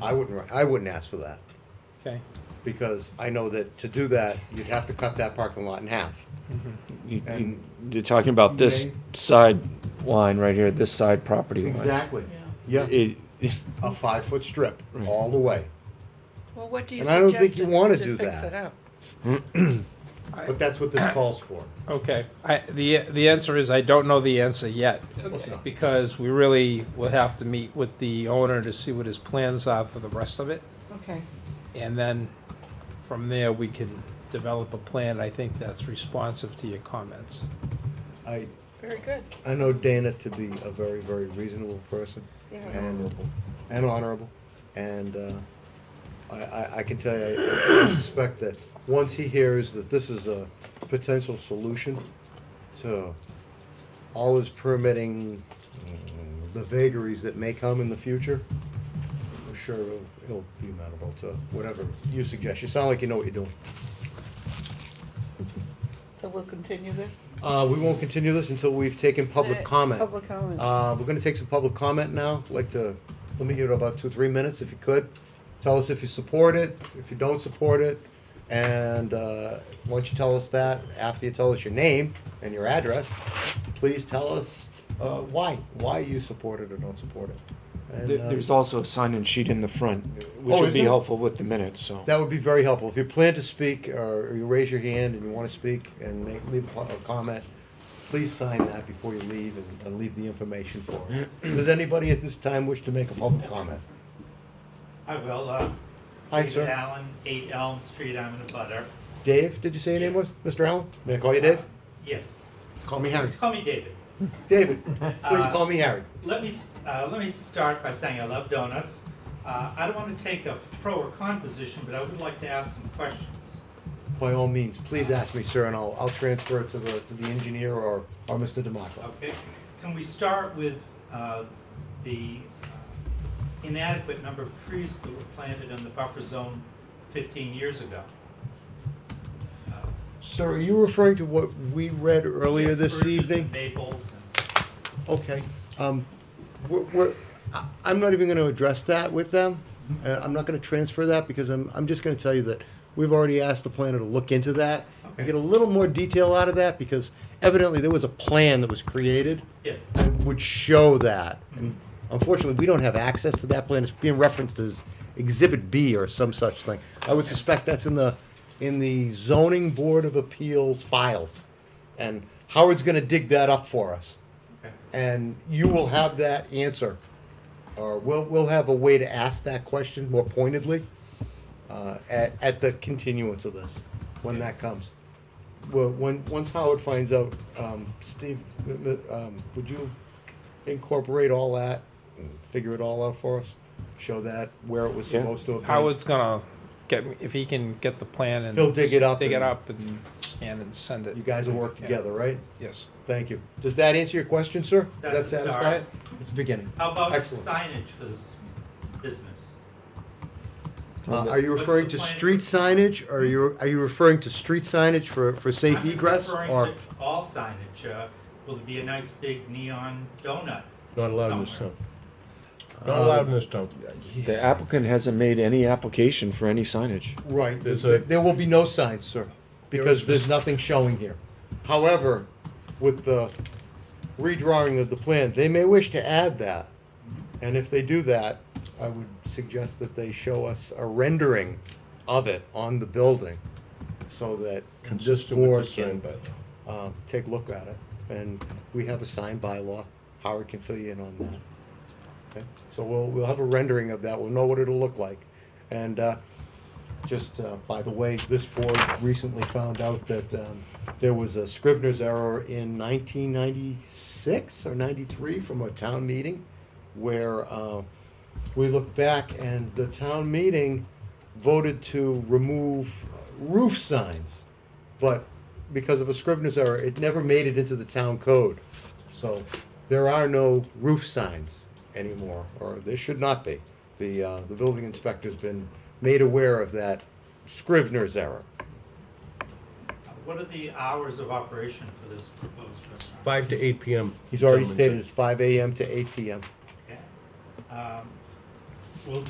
I wouldn't, I wouldn't ask for that, Okay, because I know that to do that, you'd have to cut that parking lot in half. You- you- And- You're talking about this May- side line right here, this side property line. Exactly, yeah, It, a five-foot strip, Right. all the way, Well, what do you And I don't think suggest you to wanna to do fix that. it up? but that's what this calls for. okay. I, the, the answer is I don't know the answer yet. course not. Because we really will have to meet with the owner to see what his plans are for the rest of it. Okay, And then from there, we can develop a plan. I think that's responsive to your comments. I, very good. I know Dana to be a very, very reasonable person. Yeah. and And honorable, and, uh, I, I, I can tell you, I I suspect that once he hears that this is a potential solution to all his permitting, mm, the vagaries that may come in the future, I'm sure he'll, he'll be amenable to whatever you suggest. You sound like you know what you're doing. So we'll continue this? Uh, we won't continue this until we've taken public The comment. Uh, Public comment. Uh, we're gonna take some public comment now, like to limit you to about two, three minutes if you could. Tell us if you support it, if you don't support it, and, uh, once you tell us that, after you tell us your name and your address, please tell us, uh, why, why you support it or don't support it. And, there- uh, there's also a sign-in sheet in the front, which Oh, would is be there? helpful with the minutes, so. That would be very helpful. If you plan to speak, uh, or you raise your hand and you wanna speak and make, leave a po- a comment, please sign that before you leave and, and leave the information for us. Does anybody at this time wish to make a public comment? I will, uh. Hi, David sir. Allen, eight Elm Street, I'm in a butter. Dave, did you say your name was? Yes. Mr. Allen? May I call you Dave? Yes, Call me Harry. call me David. David, please Uh, call me Harry. Let me, s- uh, let me start by saying I love donuts. Uh, I don't wanna take a pro or con position, but I would like to ask some questions. By all means, please ask me, sir, and I'll, I'll transfer it to the, to the engineer or, or Mr. Demaco. Okay, can we start with, uh, the uh, inadequate number of trees that were planted in the buffer zone fifteen years ago? Uh, Sir, are you referring to what we read earlier yes, this spruces and evening? Maples and. Okay, um, we're, we're, I- I'm not even gonna address that with them. Mm-hmm. Uh, I'm not gonna transfer that because I'm, I'm just gonna tell you that we've already asked the planner to look into that. Okay. and Get a little more detail out of that because evidently there was a plan that was created. Yeah. Mm-hmm. that would show that. And Unfortunately, we don't have access to that plan. It's being referenced as Exhibit B or some such thing. I would suspect that's in the, in the zoning board of appeals files. And Howard's gonna dig that up for us. Okay. And you will have that answer. Or we'll, we'll have a way to ask that question more pointedly, uh, at, at the continuance of this, when that comes. Well, when, once Howard finds out, um, Steve, m- m- um, would you incorporate all that and figure it all out for us? Show that where it was Yeah. supposed to have been? Howard's gonna get, if he can get the plan and. He'll dig it up Dig it and- up and scan and send it. You guys will work Yeah. together, right? Yes. Thank you. Does that answer your question, sir? Does that That's a satisfy start. it? It's a beginning. How about Excellent. signage for this business? Uh, are you What's referring the to plan? street signage, or are you, are you referring to street signage for, for safe I'm egress, referring or? to All signage, uh, will it be a nice big neon donut? Not allowed in this somewhere? town. Not allowed in this town. The applicant hasn't made any application for any signage. Right, There's there a- there will be no signs, sir, because there's nothing showing here. However, with the redrawing of the plan, they may wish to add that. And if they do that, I would suggest that they show us a rendering of it on the building so that this Consistent with board the sign can, bylaw. um, take a look at it. And we have a signed bylaw, Howard can fill you in on that. Okay, So we'll, we'll have a rendering of that, we'll know what it'll look like. And, uh, just, uh, by the way, this board recently found out that, um, there was a Scrivener's error in nineteen ninety-six or ninety-three from a town meeting where, uh, we looked back and the town meeting voted to remove roof signs. But because of a Scrivener's error, it never made it into the town code. So there are no roof signs anymore, or there should not be. The, uh, the building inspector's been made aware of that Scrivener's error. What are the hours of operation for this proposed restaurant? Five to eight PM. He's already gentlemen, stated it's five AM to eight PM. Okay. Um,